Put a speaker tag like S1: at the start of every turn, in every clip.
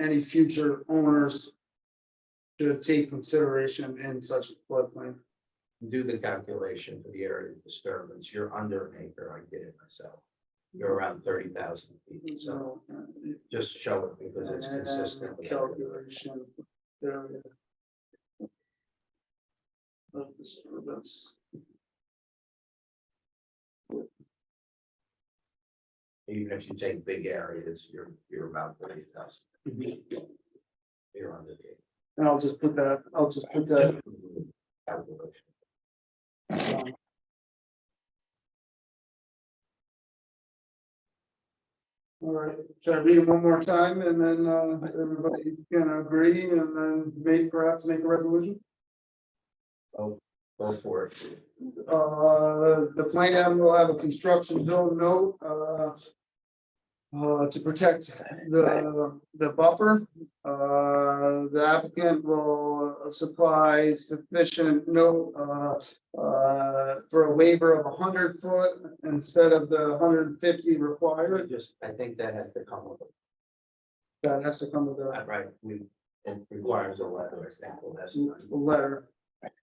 S1: any future owners should take consideration in such a floodplain.
S2: do the calculation for the area of disturbance, you're under an acre, I did it myself. You're around thirty thousand feet, so
S1: So, uh, it-
S2: just show it because it's
S1: and
S2: consistent. with everything.
S1: Calculation. area Of disturbance.
S2: Even if you take big areas, you're, you're about thirty thousand. You're under the.
S1: And I'll just put that, I'll just put that.
S2: Calculation.
S1: um, All right, should I read it one more time and then uh, everybody can agree and then maybe perhaps make a resolution?
S2: Go for it.
S1: Uh, the plan will have a construction zone note, uh. Uh, to protect the, the buffer, uh, the applicant will supply sufficient note, uh. Uh, for a waiver of hundred foot instead of the hundred and fifty required,
S2: Just, I think that has to come with,
S1: that has to come with a
S2: it, right, we, it requires a letter, example, that's not
S1: letter.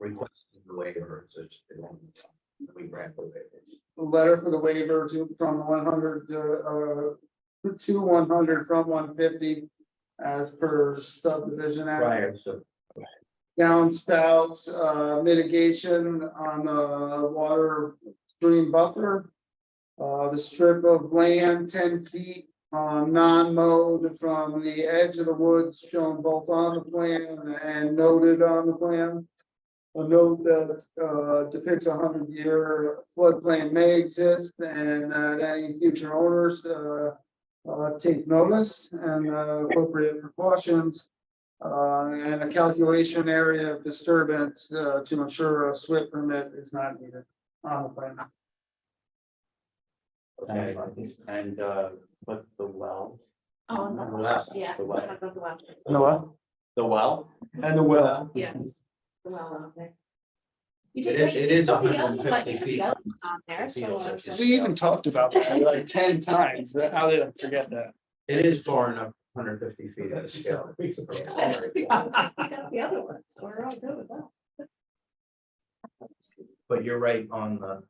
S2: requesting the waiver, so it's. it won't be done. We grant the waiver.
S1: a letter for the waiver to, from one hundred, uh, to one hundred from one fifty as per subdivision act.
S2: Prior to
S1: Downspouts, uh, mitigation on the water stream buffer. Uh, the strip of land ten feet, uh, non-mowed from the edge of the woods shown both on the plan and noted on the plan. A note that uh, depicts a hundred year floodplain may exist and that any future owners uh, uh, take notice and uh, appropriate precautions. uh, And a calculation area of disturbance uh, to ensure a SWIP permit is not needed on the plan.
S2: Okay,
S3: And, uh, but the well,
S4: Oh, on
S2: On the
S4: the
S2: left,
S4: left, yeah.
S3: the left.
S4: on the left,
S1: And the what?
S3: the well?
S1: And the well.
S4: Yes. The well out there. You
S2: It
S4: did
S2: is-
S4: great.
S2: it is
S4: You put the yellow-
S2: 150
S4: but you put the
S2: feet.
S4: yellow On there,
S2: The
S4: so.
S2: fields are
S4: I was
S2: just-
S4: like,
S1: We even talked about that like ten times. How did I forget that?
S2: It is far enough, hundred fifty feet. at scale.
S4: "We got The other one, so we're all good with that.
S2: But you're right on the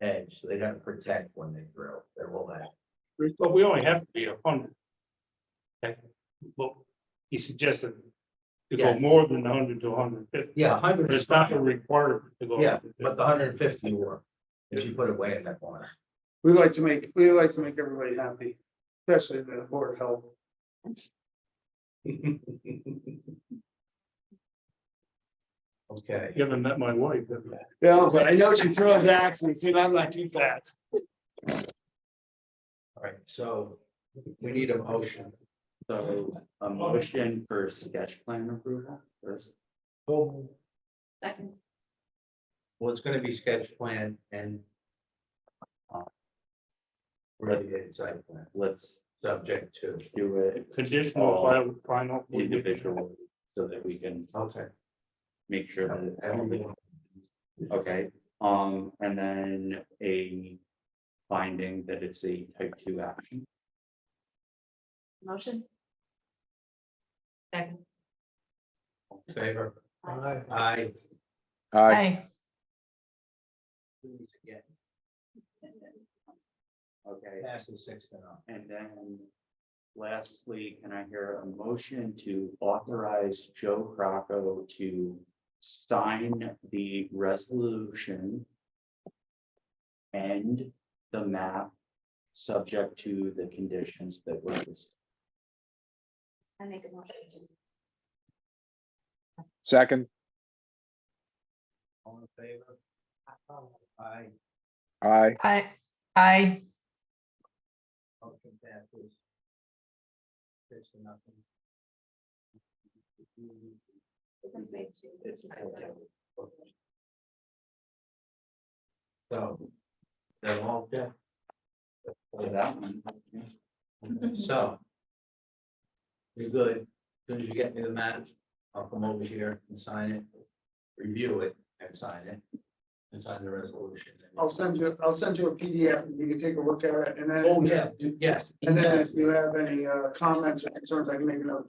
S2: edge, so they don't protect when they drill, they will that.
S5: But we only have to be a hundred. Okay, Well, he suggested to go
S2: Yeah.
S5: more than hundred to hundred fifty,
S2: Yeah,
S5: but
S2: hundred is
S5: it's not a
S2: fine,
S5: requirement to go.
S2: Yeah, but the hundred and fifty will, if you put it way in that corner.
S1: We like to make, we like to make everybody happy, especially the board of health.
S2: Okay,
S5: You haven't met my wife. have you?
S1: Yeah, but I know she throws axes and I'm not too fast.
S2: all right, so we need a motion.
S3: So a motion for sketch plan approval first.
S2: Well,
S4: Second,
S2: it's gonna be sketch plan and related site plan,
S3: Let's
S2: subject to,
S3: do it
S2: Oh.
S5: Conditional final, final.
S3: individually so that we can
S2: okay.
S3: make sure that everything, okay? Um, and then a finding that it's a type two action.
S4: motion. Second.
S2: Favor?
S4: Aye.
S2: Aye.
S6: Aye.
S2: Again,
S3: Okay.
S2: passes six to none.
S3: And then lastly, can I hear a motion to authorize Joe Crocco to sign the resolution and the map, subject to the conditions that were discussed?
S4: I make a motion.
S6: Second,
S2: All in favor? Aye.
S6: aye.
S7: I, I,
S2: Motion passes. Six to nothing.
S4: It's made to-
S2: It's So. They're all dead.
S3: For that one.
S1: Mm-hmm.
S2: So. You're good. As Soon as you get me the map, I'll come over here and sign it. Review it and sign it. And sign the resolution.
S1: I'll send you, I'll send you a PDF, and you can take a look at it and then.
S2: Oh, yeah, you- yes.
S1: And then if you have any uh, comments or concerns, I can make another